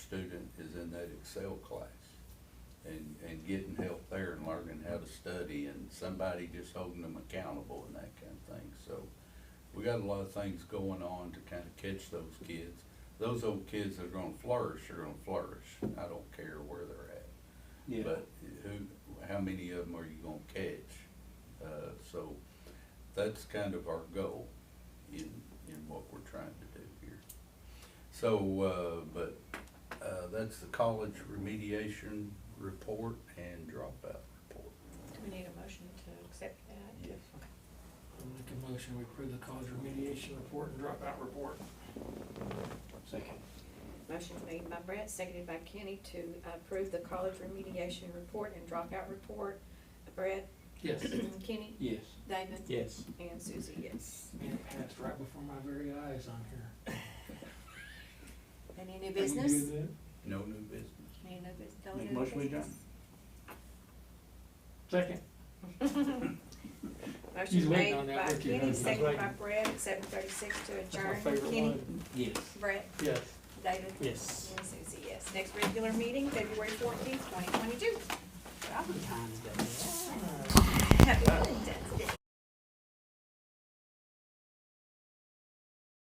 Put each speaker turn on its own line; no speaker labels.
Excel class and, and getting help there and learning how to study and somebody just holding them accountable and that kind of thing. So we got a lot of things going on to kind of catch those kids. Those old kids that are gonna flourish are gonna flourish. I don't care where they're at.
Yeah.
But who, how many of them are you gonna catch? Uh, so that's kind of our goal in, in what we're trying to do here. So, uh, but, uh, that's the college remediation report and dropout report.
Do we need a motion to accept that?
Yes.
I'll make a motion, we approve the college remediation report and dropout report.
Second.
Motion made by Brett, seconded by Kenny to approve the college remediation report and dropout report. Brett,
Yes.
Kenny,
Yes.
David,
Yes.
and Susie, yes.
Man, it passed right before my very eyes on here.
Any new
How you do
business?
that?
No new business.
Any new bus- no
Make
new
motion we
business?
Second. He's
Motion
waiting
made
on that,
by
look, he
Kenny,
knows he's
seconded by
waiting.
Brett, at seven thirty-six to
That's my
adjourn.
favorite
Kenny,
one.
Yes.
Brett,
Yes.
David,
Yes.
and Susie, yes. Next regular meeting, February fourteenth, twenty twenty-two.
Valentine's Day.
Happy Valentine's.